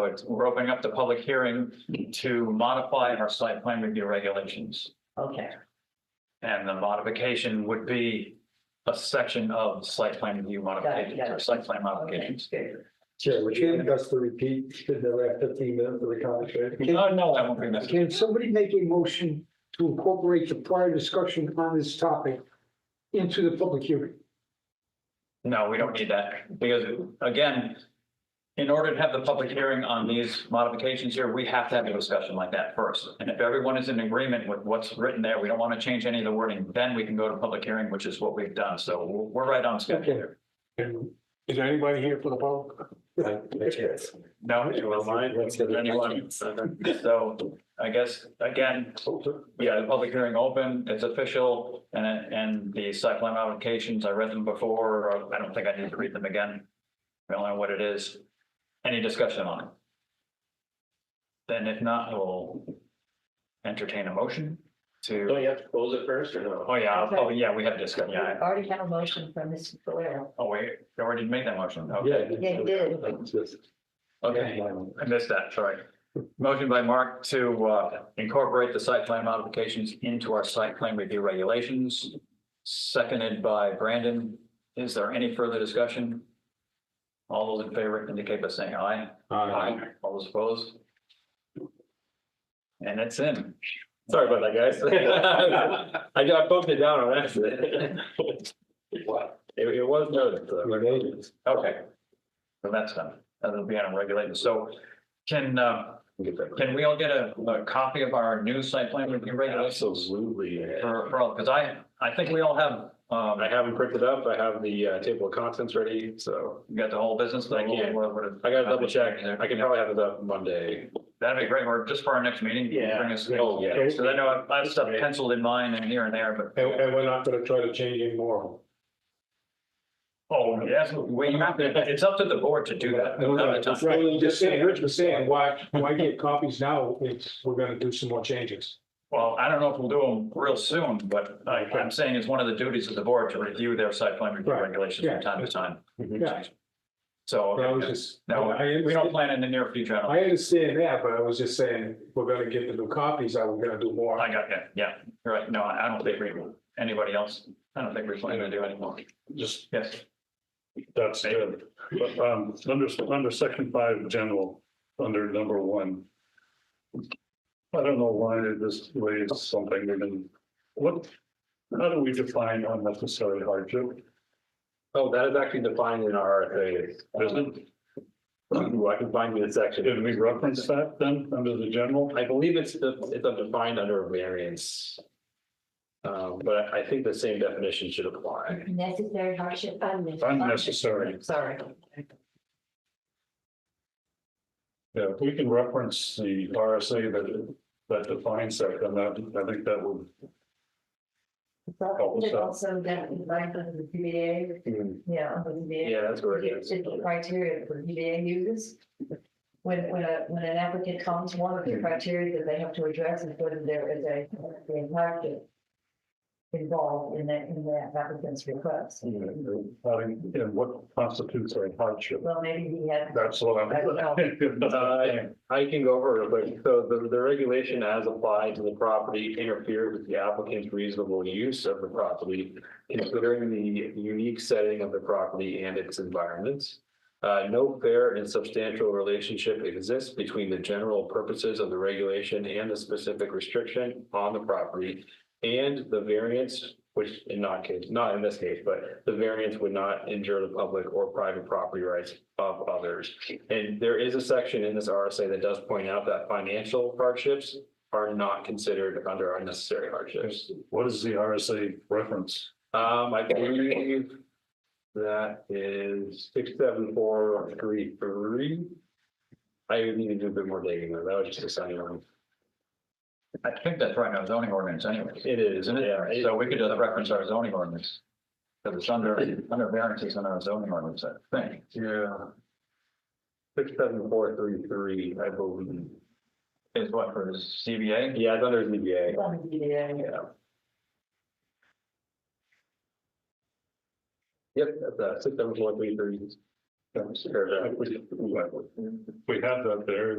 But we're opening up the public hearing to modify our site plan review regulations. Okay, And the modification would be a section of site plan review modifications got or it. site plan okay, modifications. good. Chair, would you give us the repeat, in the last fifteen minutes of the conversation? No, no, that won't be necessary. Can somebody make a motion to incorporate the prior discussion on this topic into the public hearing? No, we don't need that because again, in order to have the public hearing on these modifications here, we have to have a discussion like that first. And if everyone is in agreement with what's written there, we don't want to change any of the wording, then we can go to public hearing, which is what we've done. So we're right on schedule Okay. here. Is there anybody here for the public? Yes. No, anyone. So I guess, again, yeah, the public hearing open, it's official and, and the site plan modifications, I read them before. or I don't think I need to read them again. We all know what it is. Any discussion on it? Then if not, we'll entertain a motion Don't to, you have to close it first or no? oh yeah, oh yeah, we have discussed, yeah. Already had a motion from Mr. Valero. Oh, wait, you already made that motion. Yeah. Okay, Yeah, you did. okay. I missed that, sorry. Motion by Mark to uh, incorporate the site plan modifications into our site plan review regulations. Seconded by Brandon. Is there any further discussion? All those in favor indicate by saying aye. All those opposed? And it's in. Sorry about that, guys. I got bumped it down on accident. What? It, it was noted. so. Okay. So that's done. That'll be on a regulated. So can, uh, can we all get a, a copy of our new site plan review regulations? Absolutely. For, for all, because I, I think we all have, um, I have them printed up. I have the uh, table of contents ready, so you got the whole business. but I can't. what- what- I gotta double check. I can probably have it up Monday. That'd be great, or just for our next meeting. you can Yeah. Bring us, Oh, yeah. because I know I've- I've stuff penciled in mine and here and there, but, And, and we're not gonna try to change any more. oh, yes, we have to, it's up to the board to do that. No, no, another it's time. rather than Just saying, Rich was saying, why, why get copies now if we're gonna do some more changes? Well, I don't know if we'll do them real soon, but I, I'm saying it's one of the duties of the board to review their site plan review Right. regulations from Yeah. time to time. Yeah. So, But I was okay. just, I, no, I we don't understand- plan in the near future. I don't- I understand that, but I was just saying, we're gonna get the new copies, I we're gonna do more. I got, yeah, yeah, you're right. No, I I don't think we, anybody else, I don't think we're planning to do anymore. Just, Yes. that's good. But, um, under, under section five, general, under number one. I don't know why this raised something, we didn't, what, how do we define unnecessary hardship? Oh, that is actually defined in our RFA. Isn't, Ooh, I can find you the did section. we reference that then, under the general? I believe it's, it's defined under variance. Um, but I think the same definition should apply. Necessary hardship. Unnecessary. Sorry. Yeah, if we can reference the RSA that, that defines that, then that, I think that would, Oh, so- Also, that is like the ZBA, yeah, under the ZBA. Mm. Yeah, that's where it It's is. the criteria for ZBA uses. When, when a, when an applicant comes, one of the Mm. criteria that they have to address is whether there is a, a hardship involved in that, in that applicant's request. Mm-hmm. having, and what constitutes a hardship? Well, maybe he had, That's what I'm. I don't know. I can go over it, but so the, the regulation as applied to the property interfered with the applicant's reasonable use of the property, considering the unique setting of the property and its environments. Uh, no fair and substantial relationship exists between the general purposes of the regulation and the specific restriction on the property. And the variance, which in not case, not in this case, but the variance would not injure the public or private property rights of others. And there is a section in this RSA that does point out that financial hardships are not considered under unnecessary hardships. What is the RSA reference? Um, I believe that is six, seven, four, three, three. I would need to do a bit more digging though. That was just a sign one. I think that's right, now zoning ordinance anyway, It is, isn't it? yeah. So we could just reference our zoning ordinance. Because it's under, under variances in our zoning ordinance, I think. Yeah. Six, seven, four, three, three, I believe. Is what for the CBA? Yeah, it's under ZBA. on the ZBA. Yeah. Yep, that's uh, six, seven, four, three, three. That's- We have that there,